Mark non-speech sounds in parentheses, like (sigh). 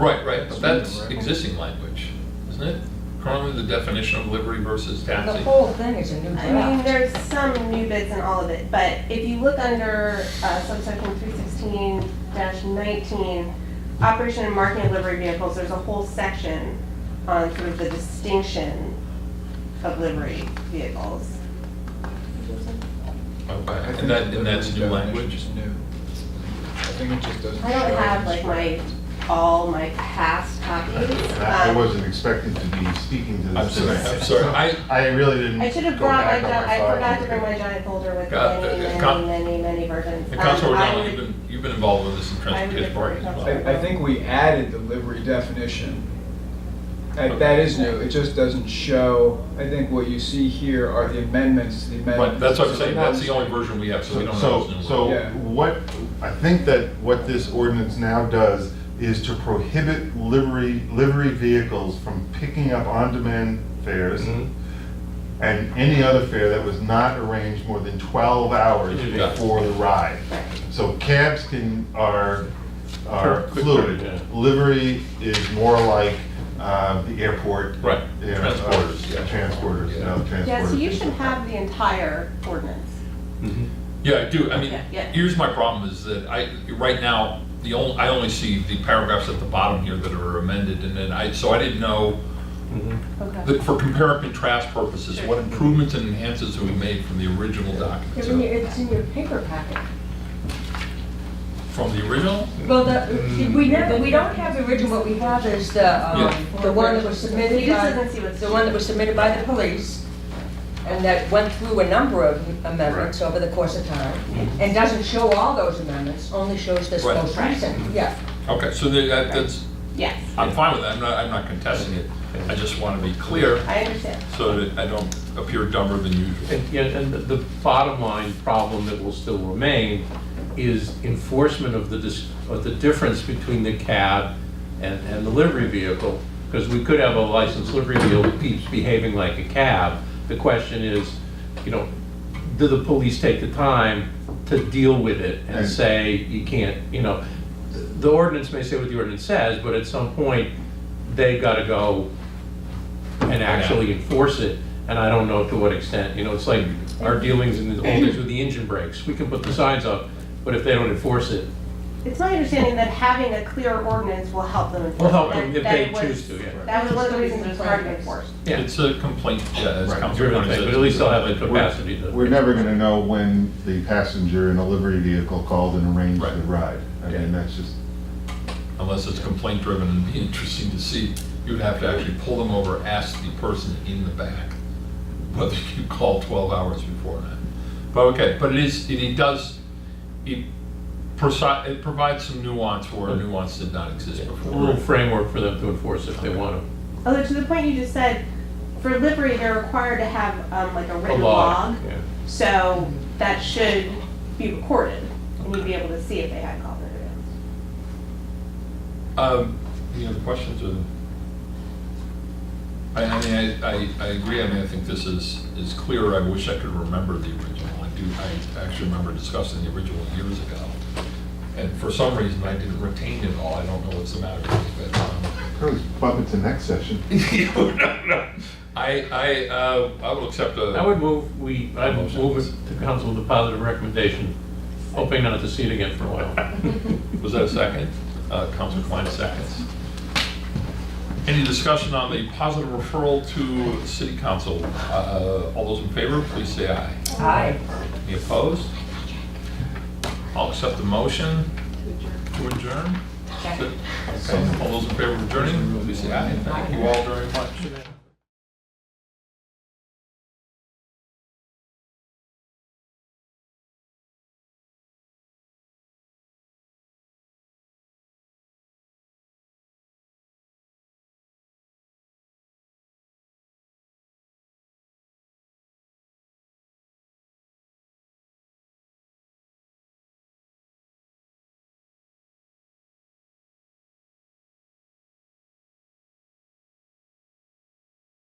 Right, right, but that's Right. existing language, isn't it? Currently, the definition of livery versus The taxi. whole thing is a new I mean, draft. there's some new bits in all of it, but if you look under uh, subsection three sixteen nineteen, operation and marketing of livery vehicles, there's a whole section on sort of the distinction of livery vehicles. I Okay, think And that, and that's new definition's language? New. I think it just doesn't. I don't show have it. like my, all my past copies. I I Um, wasn't expecting to be speaking to this. I'm sorry, tonight. I'm sorry, I, I really didn't. I should have go brought my, back gi- on I file. forgot to bring my giant folder with God, many, uh, uh, many, con- many, many versions. and Um, Counselor I O'Donnell, would- you've been, you've been involved with this in transportation parking as well. I, I think we added the livery definition. That that is new, it just doesn't show, I think what you see here are the amendments, the But amendments. that's what I'm saying, So that's the only version we have, so we don't know So, what's new. so Yeah. what, I think that what this ordinance now does is to prohibit livery, livery vehicles from picking up on-demand fares Mm-hmm. Mm-hmm. and any other fare that was not arranged more than 12 hours You got it. before the ride. So cabs can, are, are Quick, quick, fluid. yeah. Livery is more like uh, the airport. Right. you know, uh, Transporters, yeah. Transporters, you know, transporters. Yeah, so you should have the entire ordinance. Yeah, I do, I mean, Yeah, yeah. here's my problem is that I, right now, the only, I only see the paragraphs at the bottom here that are amended, and then I, so I didn't know, Mm-hmm. Okay. that for compare and contrast purposes, what improvements and enhances have we made from the original document? It's So, in your, it's in your paper packet. From the original? Well, Mm. the, we never, we don't have the original, what we have is the, um, Yeah. the one that was He submitted just by, doesn't see what's- the one that was submitted by the police, and that went through a number of amendments over the course of time, and doesn't show all those amendments, only shows this Mm-hmm. Right. Mm-hmm. most recent, yeah. Okay, so that- that- that's, Yes, Um, I'm fine with that, I'm not, I'm not contesting it. I just want to be clear I understand. so that I don't appear dumber than usual. And, yeah, and the- the bottom line problem that will still remain is enforcement of the, dis- of the difference between the cab and, and the livery vehicle. Because we could have a licensed livery vehicle that keeps behaving like a cab. The question is, you know, do the police take the time to deal with it and And- say, you can't, you know? The ordinance may say what the ordinance says, but at some point, they've got to go and actually enforce it, and I don't know to what extent, you know, it's like our dealings in the oldies with the engine brakes, we can put the signs up, but if they don't enforce it, It's my understanding that having a clear ordinance will help them. enforce Will it. help them if That- they that was- choose to, yeah. That was one of the reasons it was hard to enforce. yeah, It's a complaint, yeah, as Right. Counselor Brennan driven thing, says. but at least they'll have the capacity We're to. never gonna know when the passenger in a livery vehicle called and arranged the Right. ride. I mean, that's just, Unless it's complaint driven, it'd be interesting to see. You'd have to actually pull them over, ask the person in the back whether you called 12 hours before that. But okay, but it is, it it does, it preci- it provides some nuance where a nuance did not exist A before. little framework for them to enforce if they want Although to the point you just said, for livery, they're required to have um, like a to. A written law. log. yeah. So that should be recorded and you'd be able to see if they had called it or not. Um, Any other questions or? I, I mean, I, I, I agree, I mean, I think this is, is clear, I wish I could remember the original, I do, I actually remember discussing the original years ago. And for some reason, I didn't retain it all, I don't know what's the matter with me, but, um, (laughs) probably bump it to next session. no, no. I, I, uh, I will accept a. I would move, we, I would move it to council with a positive recommendation, hoping not to see it again for a while. Was that a second? Uh, Councilor Klein, seconds. Any discussion on the positive referral to city council? Uh, All those in favor, please say aye. Aye. Any opposed? I'll accept the motion to adjourn. Okay, All those in favor of adjourning, please say aye. Thank you all very much.